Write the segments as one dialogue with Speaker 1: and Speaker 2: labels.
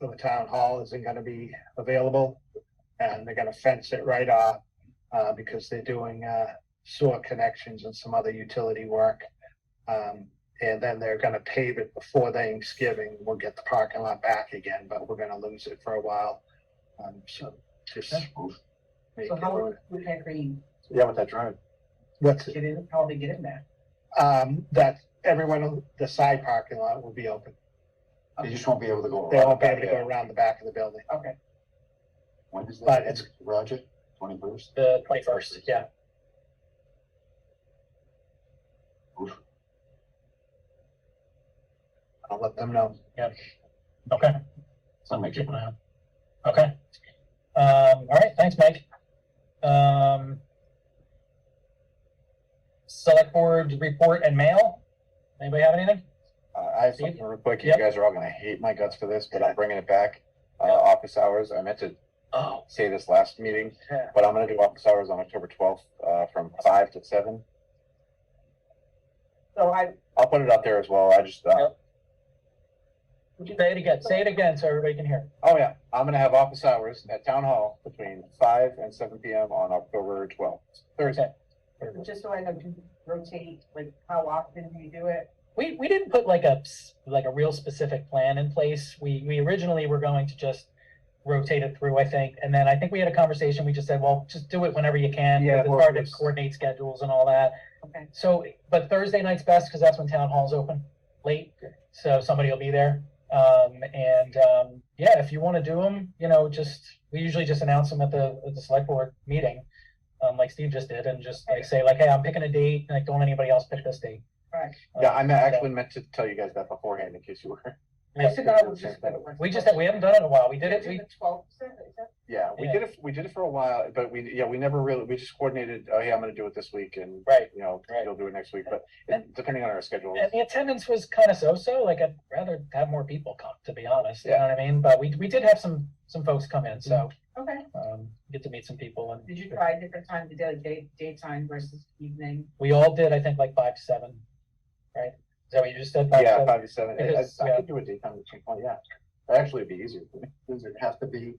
Speaker 1: for the town hall isn't gonna be available. And they're gonna fence it right off, uh, because they're doing, uh, sewer connections and some other utility work. Um, and then they're gonna pave it before Thanksgiving. We'll get the parking lot back again, but we're gonna lose it for a while. Um, so just.
Speaker 2: Okay.
Speaker 1: make
Speaker 2: So how
Speaker 1: it-
Speaker 2: would, would that green
Speaker 3: Yeah, with that drive.
Speaker 1: What's,
Speaker 2: get in, how would they get in there?
Speaker 1: um, that everyone, the side parking lot will be open.
Speaker 3: They just won't be able to go.
Speaker 1: They
Speaker 3: around
Speaker 1: won't be able to
Speaker 3: back
Speaker 1: go
Speaker 3: there.
Speaker 1: around the back of the building.
Speaker 2: Okay,
Speaker 3: When is that?
Speaker 1: But it's-
Speaker 3: Roger, twenty-first?
Speaker 4: The twenty-first, yeah.
Speaker 1: I'll let them know.
Speaker 4: Okay.
Speaker 3: So make it,
Speaker 4: Keep an eye out. Okay. Um, all right, thanks, Mike. Um. Select board report and mail. Anybody have anything?
Speaker 3: uh, I have something real quick, you
Speaker 4: Yep.
Speaker 3: guys are all gonna hate my guts for this, but I'm bringing it back. Uh, office hours, I meant to
Speaker 4: Oh.
Speaker 3: say this last meeting, but I'm gonna do office hours on October twelfth, uh, from five to seven.
Speaker 2: so I,
Speaker 3: I'll put it up there as well, I just, uh,
Speaker 4: Yep. Say it again, say it again so everybody can hear.
Speaker 3: oh yeah, I'm gonna have office hours at Town Hall between five and seven P M on October twelfth, Thursday.
Speaker 2: just so I know, do you rotate, like, how often do you do it?
Speaker 4: We, we didn't put like a, s- like a real specific plan in place. We, we originally were going to just rotate it through, I think. And then I think we had a conversation, we just said, well, just do it whenever you can.
Speaker 3: Yeah,
Speaker 4: because
Speaker 3: well,
Speaker 4: It's hard to
Speaker 3: it's-
Speaker 4: coordinate schedules and all that.
Speaker 2: Okay,
Speaker 4: So, but Thursday night's best because that's when town hall's open late. So somebody will be there. Um, and, um, yeah, if you want to do them, you know, just, we usually just announce them at the, at the select board meeting. Um, like Steve just did and just like say like, hey, I'm picking a date, like don't anybody else pick this date. Um,
Speaker 2: right.
Speaker 4: Oh,
Speaker 3: Yeah, I me- actually meant to tell you guys that beforehand in case you were,
Speaker 2: I should know, we're just gonna work.
Speaker 4: We just, we haven't done it in a while. We did it,
Speaker 2: Do
Speaker 4: we,
Speaker 2: the twelfth, is that,
Speaker 3: yeah, we
Speaker 4: Yeah.
Speaker 3: did it, we did it for a while, but we, yeah, we never really, we just coordinated, oh, yeah, I'm gonna do it this week and
Speaker 4: right.
Speaker 3: you know,
Speaker 4: Right.
Speaker 3: you'll do it next week, but it- depending on our schedule.
Speaker 4: And the attendance was kind of so-so, like I'd rather have more people come, to be honest. You know
Speaker 3: Yeah.
Speaker 4: what I mean? But we, we did have some, some folks come in, so,
Speaker 2: okay,
Speaker 3: Mm-hmm.
Speaker 4: um, get to meet some people and.
Speaker 2: did you try different times of day, like day, daytime versus evening?
Speaker 4: We all did, I think, like five to seven, right? Is that what you just said? Five to
Speaker 3: Yeah,
Speaker 4: seven?
Speaker 3: five to seven, I-
Speaker 4: Because,
Speaker 3: I, I
Speaker 4: yeah.
Speaker 3: could do a daytime between, well, yeah, that actually would be easier for me, does it have to be?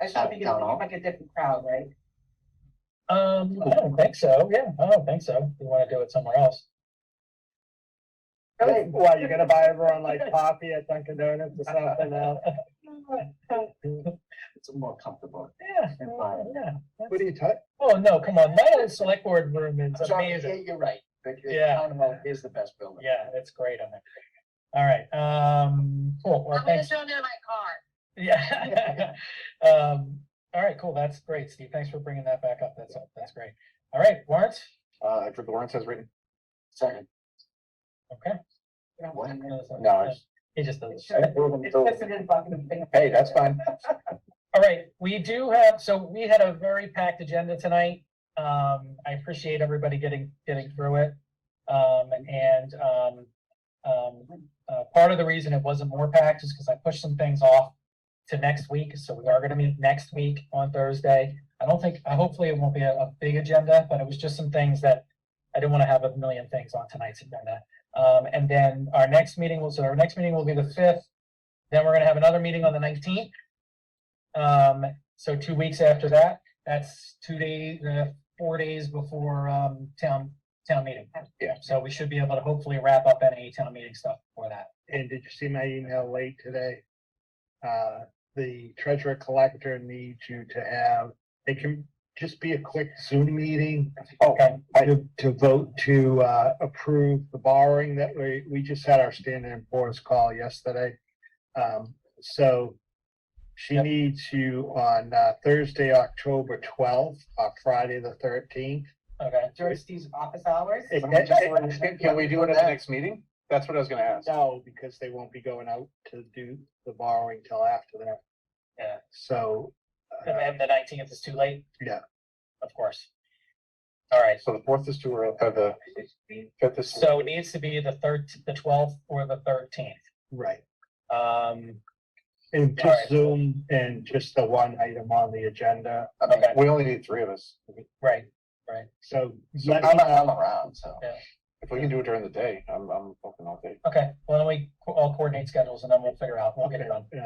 Speaker 2: I should think it's
Speaker 3: Town hall.
Speaker 2: like a different crowd, right?
Speaker 4: Um, I don't think so. Yeah, I don't think so. We want to do it somewhere else.
Speaker 1: Hey, Why, you gonna buy everyone like coffee at Dunkin' Donuts or something now?
Speaker 3: It's more comfortable.
Speaker 4: Yeah,
Speaker 3: And five.
Speaker 4: yeah.
Speaker 1: What do you touch?
Speaker 4: Oh, no, come on. My old select board room is amazing.
Speaker 3: you're right, the,
Speaker 4: Yeah.
Speaker 3: town hall is the best building.
Speaker 4: Yeah, it's great on there. All right, um, cool. Well,
Speaker 5: I'm gonna
Speaker 4: thanks.
Speaker 5: show them in my car.
Speaker 4: Yeah. Um, all right, cool. That's great, Steve. Thanks for bringing that back up. That's, that's great. All right, warrants?
Speaker 3: Uh, for Lawrence has written. Second.
Speaker 4: Okay.
Speaker 2: You don't
Speaker 3: What?
Speaker 2: wanna know.
Speaker 3: No, I just-
Speaker 4: He just does.
Speaker 2: Sure. It's just an fucking thing.
Speaker 3: hey, that's fine,
Speaker 4: All right, we do have, so we had a very packed agenda tonight. Um, I appreciate everybody getting, getting through it. Um, and, um, um, uh, part of the reason it wasn't more packed is because I pushed some things off to next week, so we are gonna meet next week on Thursday. I don't think, uh, hopefully it won't be a, a big agenda, but it was just some things that I didn't wanna have a million things on tonight's agenda. Um, and then our next meeting will, so our next meeting will be the fifth. Then we're gonna have another meeting on the nineteenth. Um, so two weeks after that, that's two days, uh, four days before, um, town, town meeting.
Speaker 3: Yeah.
Speaker 4: So we should be able to hopefully wrap up any town meeting stuff for that.
Speaker 1: And did you see my email late today? Uh, the treasurer collector needs you to have, it can just be a quick Zoom meeting.
Speaker 3: Oh,
Speaker 4: Okay.
Speaker 1: To, to vote to, uh, approve the borrowing that we, we just had our standing and force call yesterday. Um, so she
Speaker 4: Yep.
Speaker 1: needs you on, uh, Thursday, October twelfth, or Friday, the thirteenth.
Speaker 4: Okay.
Speaker 2: George Steve's office hours?
Speaker 1: It-
Speaker 3: Can- Can can we do it at the next meeting? That's what I was gonna ask.
Speaker 1: No, because they won't be going out to do the borrowing till after that.
Speaker 4: Yeah.
Speaker 1: So. uh,
Speaker 4: And then the nineteenth is too late?
Speaker 1: Yeah.
Speaker 4: Of course. All right.
Speaker 3: So the fourth is too early, uh, the fifth is.
Speaker 4: So it needs to be the third, the twelfth or the thirteenth.
Speaker 1: Right,
Speaker 4: Um,
Speaker 1: and
Speaker 4: All right.
Speaker 1: just Zoom and just the one item on the agenda,
Speaker 3: I mean,
Speaker 4: okay.
Speaker 3: We only need three of us.
Speaker 4: right.
Speaker 1: so.
Speaker 3: So
Speaker 1: let
Speaker 3: I'm,
Speaker 1: me-
Speaker 3: I'm around, so.
Speaker 4: Yeah.
Speaker 3: If we can do it during the day, I'm, I'm open all day.
Speaker 4: Okay. Well, then we co- all coordinate schedules and then we'll figure out. We'll get it done.
Speaker 1: Okay,